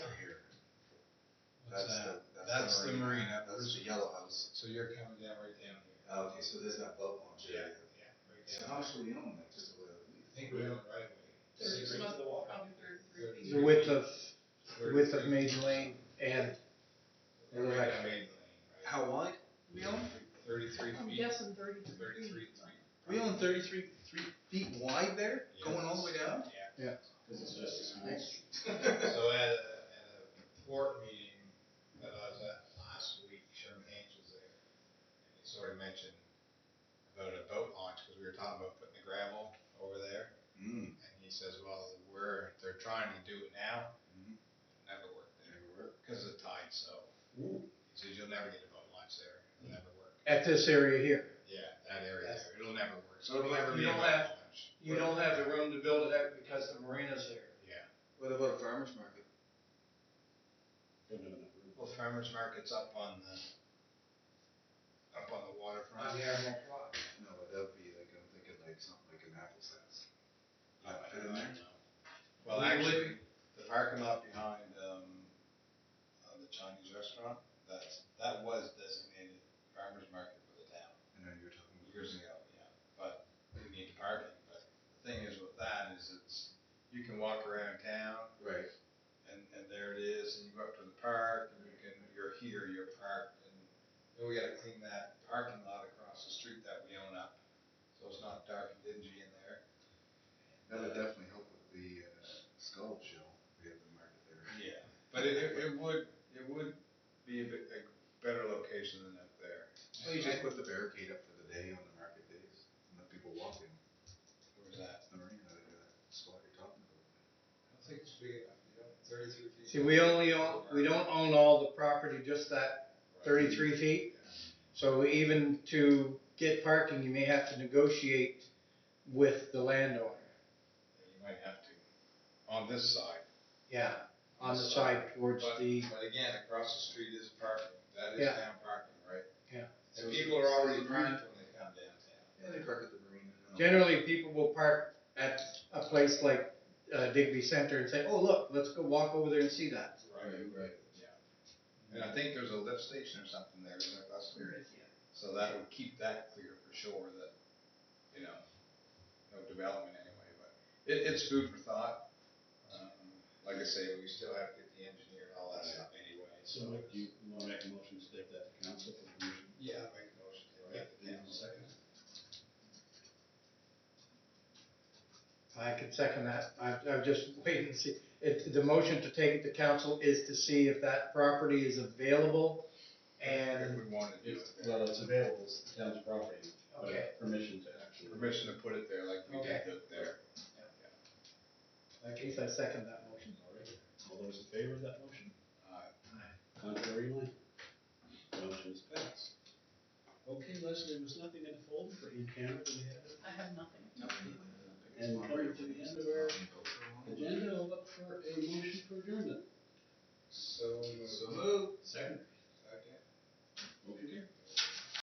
That's the, That's the marina. That's the yellow house. So you're coming down right down here. Okay, so there's that boat launch area. Yeah, right So down. how much do we own that, just a little? I think we're on the right way. Thirty-three. Thirty-three must walk on thirty-three feet. The width of, width of Maiden Lane and We're right down Maiden Lane, right? How wide? We own, Thirty-three I'm feet, guessing thirty-three thirty-three feet. feet. we own thirty-three, three feet wide there, going all the way down? Yeah. Cause it's just a Mm-hmm. So at a, at a port meeting that I was at last week, Sherman Haynes was there. And he sort of mentioned about a boat launch, cause we were talking about putting the gravel over there. Mm. And he says, well, we're, they're trying to do it now, Mhm. never worked there. Cause of the tide, so. He says, you'll never get a boat launch there, it'll never work. at this area here. Yeah, that area That's- there, it'll never work. So It'll you never be a don't boat have- launch. You don't have the room to build it out because the marina's there. Yeah. What about a farmer's market? Well, farmer's market's up on the, up on the waterfront. On the Admiral Quad. No, but that'd be like, I'm thinking like something like an Apple Sense. Not I don't in there? know. Well, actually, the parking lot behind, um, uh, the Chinese restaurant, that's, that was designated farmer's market for the town I know you were talking about. years ago, yeah, but we need parking, but the thing is with that is it's, you can walk around town Right. and, and there it is, and you go up to the park, and you can, you're here, you're parked, and then we gotta clean that parking lot across the street that we own up, so it's not dark and dingy in there. That would definitely help with the uh, skull shell. We have the market there. Yeah, but it, it, it would, it would be a bit, a better location than up there. Well, you just put the barricade up for the day on the market days and let people walk in. Where's that? That's the marina, that, uh, spot you're talking about. I don't think it's big enough, you know, thirty-three feet. See, we only own, we don't own all the property, just that thirty-three feet. So even to get parking, you may have to negotiate with the landowner. You might have to, on this side. Yeah, on the side towards But, the, but again, across the street is parking, that is Yeah. town parking, right? Yeah. And people are already So- parked when they come downtown. Yeah, they park at the marina. and all. generally people will park at a place like uh, Digby Center and say, oh, look, let's go walk over there and see that. Right, right, yeah. And I think there's a lift station or something there, isn't there, last year? So that would keep that clear for sure, that, you know, no development anyway, but it, it's food for thought. Um, Like I say, we still have to get the engineer and all that stuff anyway, so. So Mike, do you wanna make a motion to take that to council for permission? Yeah, I'll make a motion to write the Yeah. down second. I could second that. I, I'm just waiting to see. If the motion to take it to council is to see if that property is available If and, we wanna do it, there. Well, it's available, it's the town's property, but okay, permission to actually. permission to put it there like we did it there. in that case, I second that motion. All right. All those in favor of that motion? Uh, Contrary line? Motion is passed. that's- Okay, Leslie, was nothing in the folder for e-camera that we had? I have nothing. No, we need to- And coming to the end of